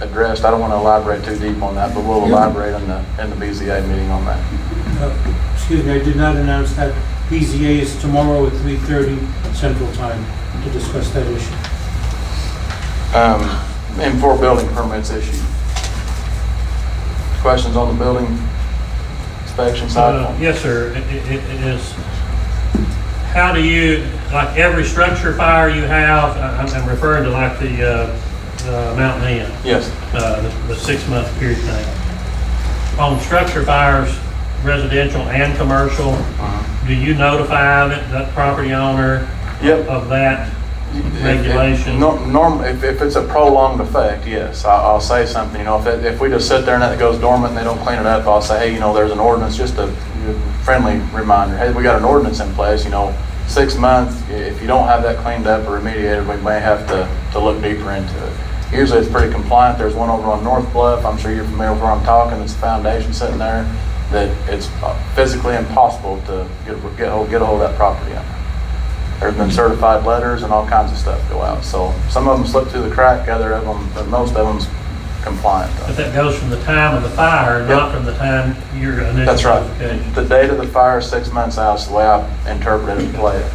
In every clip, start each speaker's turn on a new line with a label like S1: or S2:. S1: addressed. I don't want to elaborate too deep on that, but we'll elaborate in the, in the BZA meeting on that.
S2: Uh, Excuse me, I did not announce that BZA is tomorrow at 3:30 Central Time to discuss that issue.
S1: Um, And for building permits issued. Questions on the building inspection
S3: Uh,
S1: side?
S3: Yes, sir, It- it it is. How do you, like every structure fire you have, I- I'm I'm referring to like the uh, uh, Mountain Inn,
S1: Yes,
S3: uh, the- the six-month period thing. On structure fires, residential and commercial, do you notify that- that property owner
S1: yep.
S3: of that?
S1: If- if-
S3: Regulation.
S1: nor- Norm, if, if it's a prolonged effect, yes, I, I'll say something, you know, if, it- if we just sit there and it goes dormant and they don't clean it up, I'll say, hey, you know, there's an ordinance, just a friendly reminder, hey, we got an ordinance in place, you know, six months, i- if you don't have that cleaned up or remediated, we may have to, to look deeper into it. Usually it's pretty compliant, there's one over on North Bluff, I'm sure you're familiar with where I'm talking, it's a foundation sitting there, that it's uh, physically impossible to get, get hold, get hold of that property owner. There's been certified letters and all kinds of stuff go out. So some of them slip through the crack, other of them, but most of them's compliant.
S3: But that goes from the time of the fire, not from the time your initial
S1: That's right.
S3: notification.
S1: The date of the fire, is six months out, is the way I interpreted it, play it.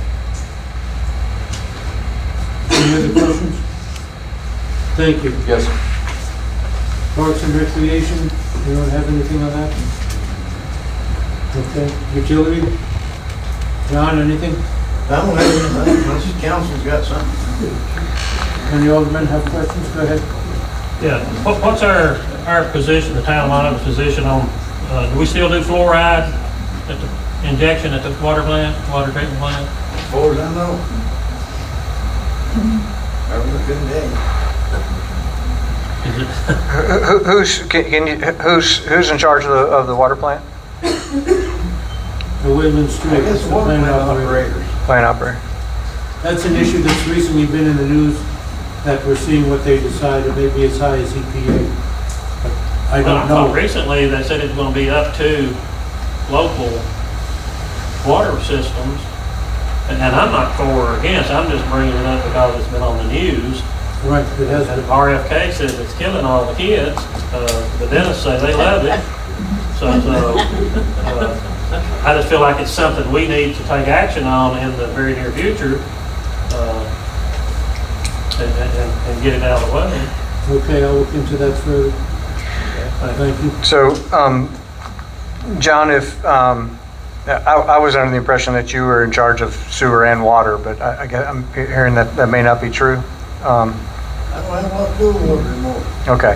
S2: Any other questions? Thank you.
S1: Yes, sir.
S2: Parks and Recreation, you don't have anything on that? Okay, utility? John, anything?
S4: I don't have anything, unless the council's got something.
S2: Any aldermen have questions? Go ahead.
S3: Yeah, What- what's our, our position, the town monitor's position on, uh, do we still do fluoride at the injection at the water plant, water treatment plant?
S4: As far as I know. Have a good day.
S3: Is it,
S5: Who- who- Who's, can can you, who's, who's in charge of the, of the water plant?
S2: The Woodland
S4: I
S2: Street.
S4: guess
S2: the
S4: water
S2: plant
S4: plant
S2: operator.
S4: operators.
S5: Plant operator.
S2: That's an issue that's recently been in the news, that we're seeing what they decide, it may be as high as EPA. but I
S3: Well, I
S2: don't
S3: thought
S2: know.
S3: Uh, recently they said it's gonna be up to local water systems. And and I'm not for or against, I'm just bringing it up because it's been on the news.
S2: Right, it has
S3: And
S2: been.
S3: RFK says it's killing all the kids, uh, the dentists say they love it. So, so, uh, I just feel like it's something we need to take action on in the very near future, uh, and, and, and get it out of the way.
S2: Okay, I'll look into that further. Thank you.
S5: So, um, John, if, um, I, I was under the impression that you were in charge of sewer and water, but I, I guess I'm hearing that that may not be true. Um,
S4: I don't have a lot to do with water anymore.
S5: Okay.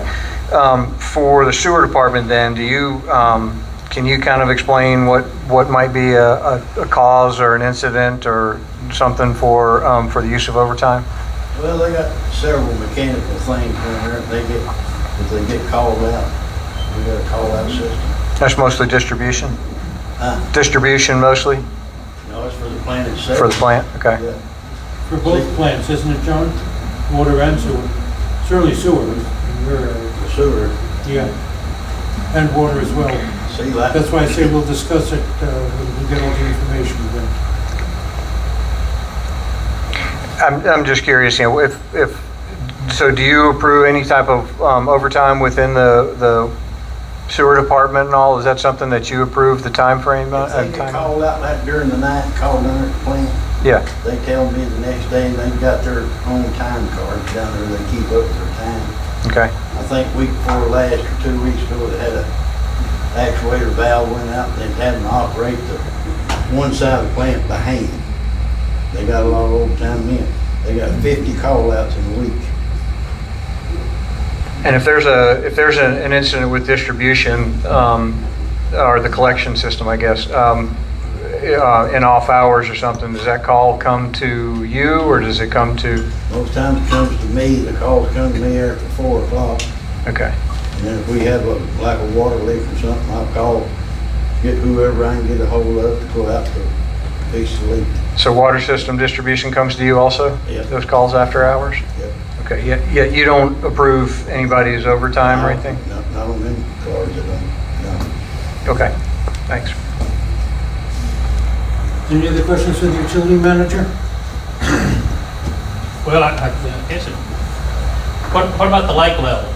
S5: Um, For the sewer department then, do you, um, can you kind of explain what, what might be a, a a cause or an incident or something for, um, for the use of overtime?
S4: Well, they got several mechanical things down there, if they get, if they get called out, we got a call out system.
S5: That's mostly distribution?
S4: Huh?
S5: Distribution mostly
S4: No, it's for the plant itself.
S5: for the plant? Okay.
S4: Yeah.
S2: For both plants, isn't it, John? Water and sewer. Certainly sewer. We're,
S4: The sewer,
S2: Yeah. And water as well.
S4: see like.
S2: That's why I say we'll discuss it uh, when we get all the information then.
S5: I'm, I'm just curious, you know, if, if, so do you approve any type of um, overtime within the, the sewer department and all? Is that something that you approve the timeframe? uh,
S4: If they get
S5: time?
S4: called out like during the night, called down there at the plant,
S5: Yeah,
S4: they tell me the next day, and they've got their own time card down there, they keep up their time.
S5: okay.
S4: I think week before last, or two weeks ago, they had a actuator valve went out, and they had them operate the one side of the plant by hand. They got a lot of overtime men. They got fifty call-outs in a week.
S5: And if there's a, if there's an an incident with distribution, um, or the collection system, I guess, um, uh, in off hours or something, does that call come to you or does it come to,
S4: Most times it comes to me, the calls come to me after four o'clock,
S5: okay,
S4: and then if we have a, like a water leak or something, I'll call, get whoever I can get a hold of to go out to fix the leak.
S5: so water system distribution comes to you also?
S4: Yeah.
S5: Those calls after hours?
S4: Yep.
S5: Okay, yet, yet you don't approve anybody's overtime or anything?
S4: No, not on them cars, I don't, no.
S5: Okay, thanks.
S2: Any other questions for the utility manager?
S3: Well, I, I guess it, what, what about the lake level? Uh,